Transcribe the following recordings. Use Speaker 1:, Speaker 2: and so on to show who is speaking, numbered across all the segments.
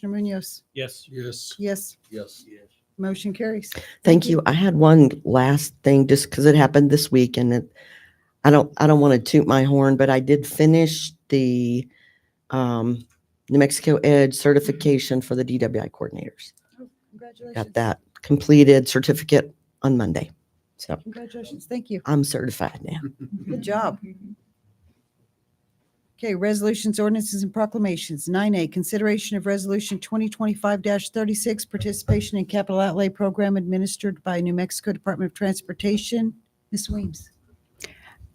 Speaker 1: Commissioner Munoz?
Speaker 2: Yes.
Speaker 3: Yes.
Speaker 1: Yes,
Speaker 3: Yes.
Speaker 2: Yes.
Speaker 1: motion carries.
Speaker 4: Thank you. I had one last thing just because it happened this week and it, I don't, I don't want to toot my horn, but I did finish the um, New Mexico Edge certification for the DWI coordinators.
Speaker 1: Congratulations.
Speaker 4: Got that completed certificate on Monday. So
Speaker 1: Congratulations. Thank you.
Speaker 4: I'm certified now.
Speaker 1: Good job. Okay, resolutions, ordinances, and proclamations. Nine A, consideration of resolution twenty twenty-five thirty-six, participation in capital outlay program administered by New Mexico Department of Transportation. Ms. Weems?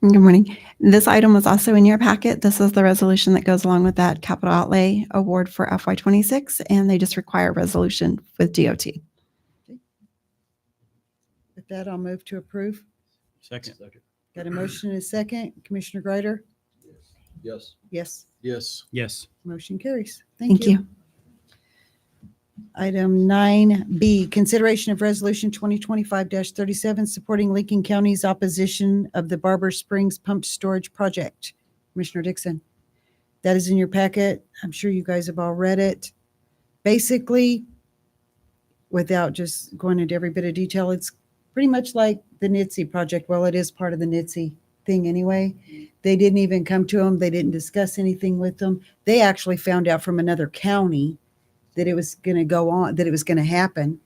Speaker 5: Good morning. This item was also in your packet. This is the resolution that goes along with that capital outlay award for FY26, and they just require a resolution with DOT.
Speaker 1: With that, I'll move to approve.
Speaker 2: Second.
Speaker 1: Got a motion and a second. Commissioner Greider?
Speaker 3: Yes.
Speaker 1: Yes,
Speaker 3: Yes.
Speaker 2: Yes.
Speaker 1: motion carries.
Speaker 5: Thank you.
Speaker 1: Item nine B, consideration of resolution twenty twenty-five thirty-seven, supporting Lincoln County's opposition of the Barber Springs Pump Storage Project. Commissioner Dixon, that is in your packet. I'm sure you guys have all read it. Basically, without just going into every bit of detail, it's pretty much like the NITSE project. Well, it is part of the NITSE thing anyway. They didn't even come to them. They didn't discuss anything with them. They actually found out from another county that it was going to go on, that it was going to happen.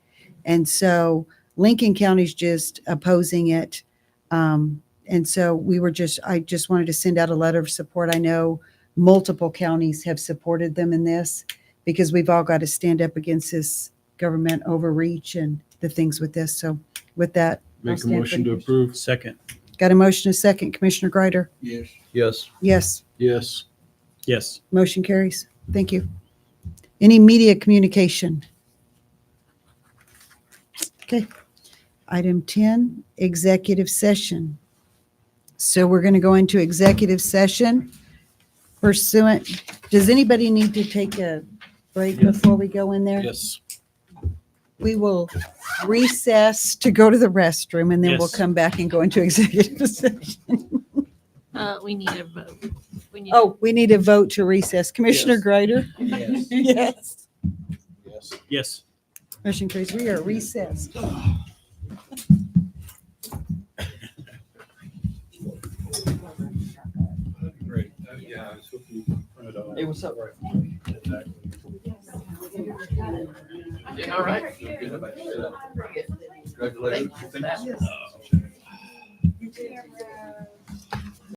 Speaker 1: And so Lincoln County's just opposing it. Um, and so we were just, I just wanted to send out a letter of support. I know multiple counties have supported them in this because we've all got to stand up against this government overreach and the things with this. So with that, I'll
Speaker 3: Make a
Speaker 1: stand for
Speaker 3: motion to
Speaker 1: the-
Speaker 3: approve.
Speaker 2: Second.
Speaker 1: Got a motion, a second. Commissioner Greider?
Speaker 3: Yes. Yes.
Speaker 1: Yes.
Speaker 3: Yes.
Speaker 2: Yes.
Speaker 1: Motion carries. Thank you. Any media communication? Okay. Item 10, executive session. So we're going to go into executive session pursuant, does anybody need to take a break before we go in there?
Speaker 3: Yes.
Speaker 1: We will recess to go to the restroom and then we'll
Speaker 2: Yes.
Speaker 1: come back and go into executive session.
Speaker 6: Uh, we need a vote. We need-
Speaker 1: Oh, we need a vote to recess. Commissioner
Speaker 3: Yes.
Speaker 1: Greider?
Speaker 3: Yes.
Speaker 1: Yes.
Speaker 3: Yes.
Speaker 2: Yes.
Speaker 1: Motion carries. We are recessed.
Speaker 3: Great. Uh, Yeah, I was hoping you printed it out.
Speaker 4: Hey, what's up?
Speaker 3: Yeah, all right. Congratulations.
Speaker 7: Camera.